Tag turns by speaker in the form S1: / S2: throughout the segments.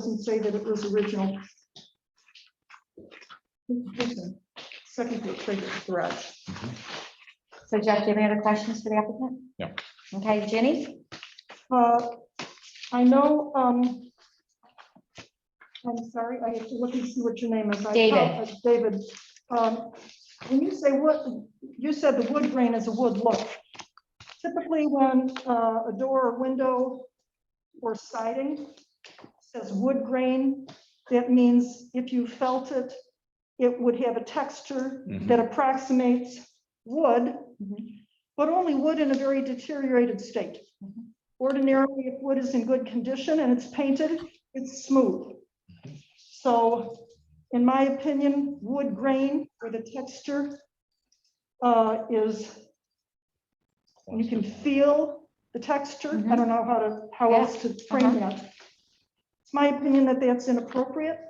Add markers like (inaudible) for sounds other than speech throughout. S1: say that it was original. Second to trigger garage.
S2: So Jeff, do you have any other questions for the applicant?
S3: No.
S2: Okay, Jenny?
S1: Uh, I know, um, I'm sorry, I have to look and see what your name is. I
S2: David.
S1: apologize, David, um, when you say wood, you said the wood grain is a wood look. Typically, when uh, a door or window or siding says wood grain, that means if you felt it, it would have a texture
S3: Mhm.
S1: that approximates wood,
S2: Mhm.
S1: but only wood in a very deteriorated state. Ordinarily, if wood is in good condition and it's painted, it's smooth. So in my opinion, wood grain or the texture uh, is, you can feel the texture. I don't know how to, how
S2: Yeah,
S1: else to frame that. It's my opinion that that's inappropriate.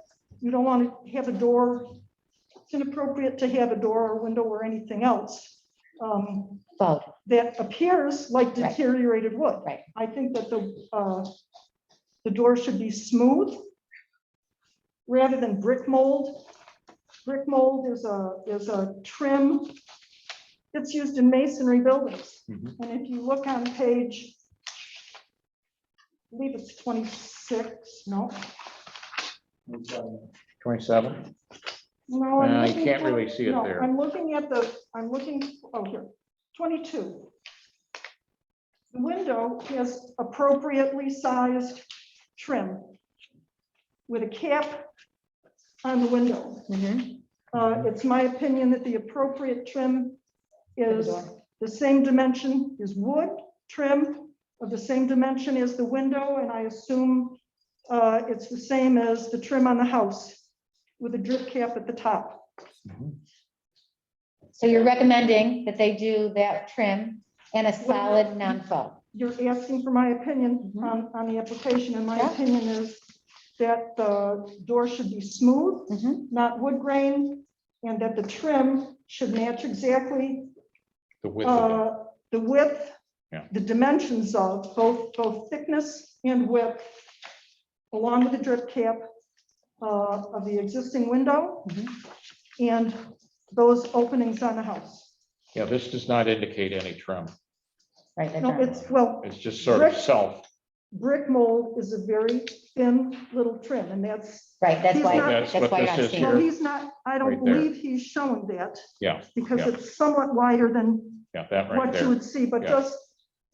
S1: You don't want to have a door, it's inappropriate to have a door or window or anything else um,
S2: Vote.
S1: that appears like
S2: Right.
S1: deteriorated wood.
S2: Right.
S1: I think that the, uh, the door should be smooth rather than brick mold. Brick mold is a, is a trim. It's used in masonry buildings.
S3: Mhm.
S1: And if you look on page, I believe it's 26, no,
S3: Twenty-seven?
S1: no. I'm
S3: Uh, you
S1: looking
S3: can't
S1: for-
S3: really see it
S1: no,
S3: there.
S1: I'm looking at the, I'm looking, oh, here, 22. The window is appropriately sized trim with a cap on the window.
S2: Mhm.
S1: Uh, It's my opinion that the appropriate trim is the same dimension, is wood trim of the same dimension as the window, and I assume uh, it's the same as the trim on the house with a drip cap at the top.
S2: So you're recommending that they do that trim and a solid non-foam?
S1: You're asking for my opinion
S2: Mhm.
S1: on, on the application, and my
S2: Yeah.
S1: opinion is that the door should be smooth,
S2: Mhm.
S1: not wood grain, and that the trim should match exactly
S3: The width of it.
S1: uh, the width,
S3: Yeah.
S1: the dimensions of both, both thickness and width, along with the drip cap uh, of the existing window
S3: Mm-hmm.
S2: Mhm.
S1: and those openings on the house.
S3: Yeah, this does not indicate any trim.
S2: Right, that's
S1: No,
S2: right.
S1: it's, well,
S3: It's just sort of
S1: Brick.
S3: self.
S1: brick mold is a very thin little trim, and that's
S2: Right, that's
S1: He's
S2: why,
S1: not-
S2: that's
S3: That's
S2: why you're
S3: what this
S2: not
S3: is
S2: seeing
S1: Well,
S2: it.
S3: here.
S1: he's not, I don't
S3: Right there.
S1: believe he's shown that.
S3: Yeah,
S1: Because
S3: yeah.
S1: it's somewhat wider than
S3: Yeah, that right
S1: what you
S3: there.
S1: would see, but
S3: Yeah.
S1: just,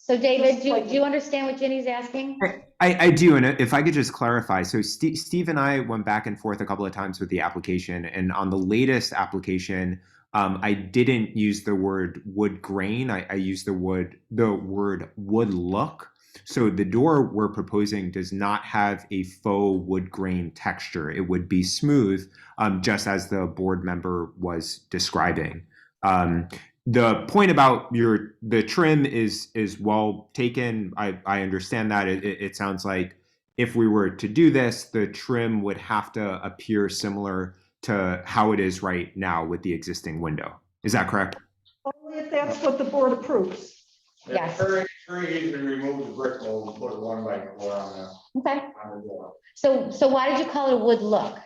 S2: So David,
S1: Just
S2: do,
S1: slightly.
S2: do you understand what Jenny's asking?
S4: I, I do, and if I could just clarify, so Steve, Steve and I went back and forth a couple of times with the application, and on the latest application, um, I didn't use the word wood grain. I, I used the wood the word wood look. So the door we're proposing does not have a faux wood grain texture. It would be smooth, um, just as the board member was describing. Um, the point about your the trim is is well taken i i understand that it, it, it sounds like if we were to do this the trim would have to appear similar to how it is right now with the existing window is that correct
S1: only if that's what the board approves.
S2: Yes.
S5: Very, very easy to remove the brick mold, and put a one by four on the,
S2: Okay,
S5: on the door.
S2: so, so why did you call it a wood look?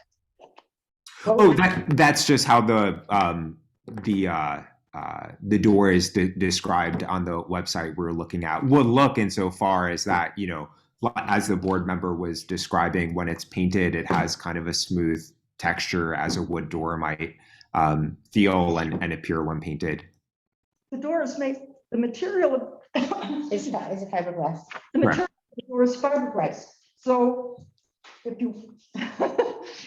S4: oh that that's just how the um the uh uh, the door is de- described on the website we're looking at would look insofar as that you know li- as the board member was describing when it's painted it has kind of a smooth texture as a wood door might um, feel and, and appear when painted
S1: The door is made, the material of. (laughs)
S2: Is,
S1: The
S2: is it fiberglass?
S1: material of the door is fiberglass,
S2: Right.
S1: so if you, (laughs)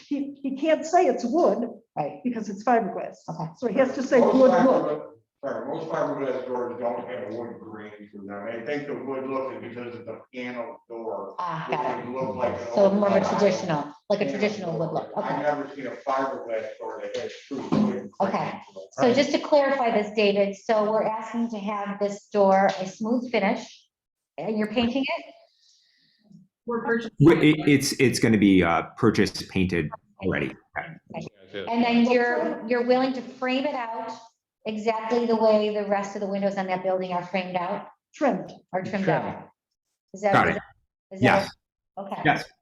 S1: he, he can't say it's wood
S2: Right,
S1: because it's fiberglass.
S2: Okay.
S1: So he has to say
S5: Most
S1: wood look.
S5: fiberglass- Sorry, most fiberglass doors don't have a wood grain to them. I think the wood look is because it's a panel door.
S2: ah,
S5: which
S2: got it.
S5: would look like an
S2: So
S5: old
S2: more of a
S5: panel.
S2: traditional, like a
S5: Panel
S2: traditional wood
S5: door.
S2: look,
S5: I've
S2: okay.
S5: never seen a fiberglass door that has true wood. grain
S2: Okay.
S5: to it.
S2: So just to clarify this, David, so we're asking to have this door a smooth finish, and you're painting it?
S6: We're purchasing.
S4: Wh- it, it's it's going to be uh, purchased painted already
S2: And then you're, you're willing to frame it out exactly the way the rest of the windows on that building are framed out
S1: Trimmed.
S2: or trimmed
S3: Trimmed.
S2: out? Is that?
S4: Got
S2: is
S4: it.
S2: that- is that-
S4: Yes.
S2: Okay.
S4: Yes.